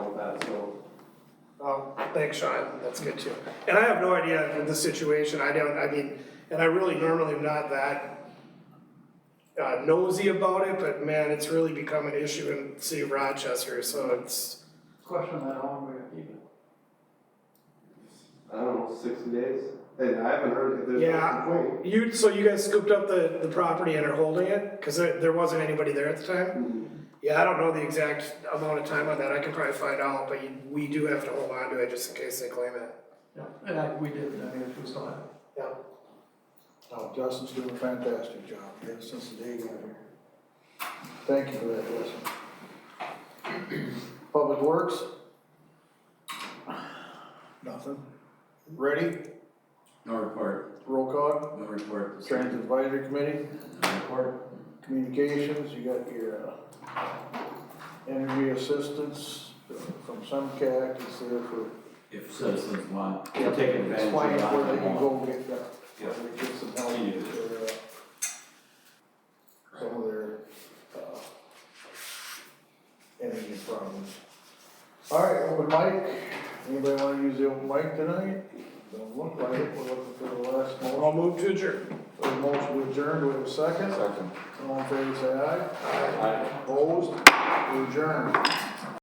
Um, thanks, Sean, that's good too. And I have no idea of the situation, I don't, I mean, and I really normally am not that uh, nosy about it, but man, it's really become an issue in the city of Rochester, so it's, Question that, how long we gonna keep it? I don't know, sixty days, and I haven't heard if there's Yeah. a complaint. you, so you guys scooped up the, the property and are holding it? Cause there, there wasn't anybody there at the time? Yeah, I don't know the exact amount of time on that, I can probably find out, but you- we do have to hold on to it just in case they claim it. Yeah, and I, we did, I mean, if we still have it. Yeah. No, Justin's Oh, doing a fantastic job, yeah, since the day he got here. Thank you for that, Justin. Public Works? Nothing. Ready? No report, Roll call. no report. Transit Advisory Committee, No report. Communications, you got your uh, energy assistance from SEMCAC, it's there for If citizens want, Yeah, take advantage of Explain that. where they can go get that, Yeah. where they get some help Yeah. with their, uh, some of their, uh, energy problems. All right, open mic, anybody wanna use the open mic tonight? Don't look like it, we're looking for the last motion, I'll move to adjourn. the motion to adjourn, do we have a second? Second. All in favor, say aye. Aye. Opposed, We adjourn.